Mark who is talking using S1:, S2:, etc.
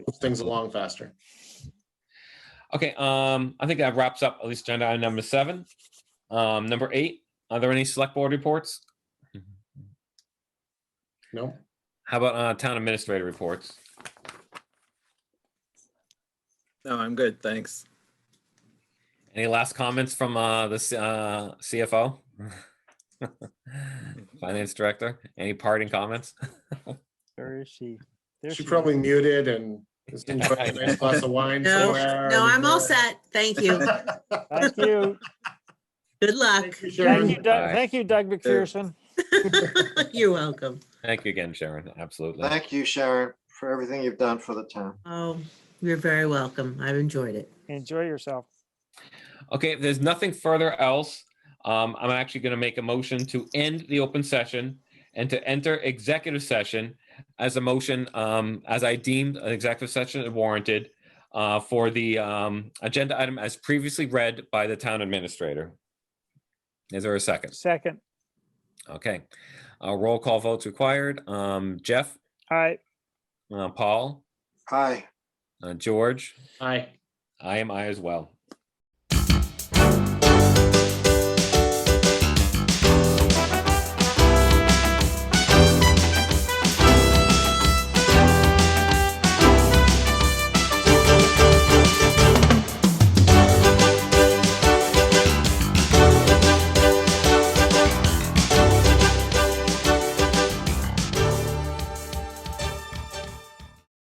S1: move things along faster.
S2: Okay, um, I think that wraps up at least agenda item number seven. Um, number eight, are there any select board reports?
S1: No,
S2: How about uh town administrator reports?
S3: No, I'm good, thanks.
S2: Any last comments from uh the C- uh CFO? Finance director, any parting comments?
S4: Where is she? There
S1: she probably muted and is enjoying a nice glass of wine
S5: No,
S1: somewhere. uh,
S5: no, I'm all set. Thank you.
S4: Thank you.
S5: Good luck.
S1: Thank you,
S4: Thank you,
S1: Sharon.
S4: Doug,
S2: Aye.
S4: thank you, Doug McPherson.
S5: You're welcome.
S2: Thank you again, Sharon, absolutely.
S6: Thank you, Sharon, for everything you've done for the town.
S5: Oh, you're very welcome. I've enjoyed it.
S4: Enjoy yourself.
S2: Okay, if there's nothing further else, um, I'm actually gonna make a motion to end the open session and to enter executive session as a motion, um, as I deemed an executive session warranted uh, for the, um, agenda item as previously read by the town administrator. Is there a second?
S4: Second,
S2: Okay, uh, roll call votes required. Um, Jeff,
S4: aye,
S2: uh, Paul,
S6: Hi.
S2: uh, George,
S1: Hi.
S2: I am I as well.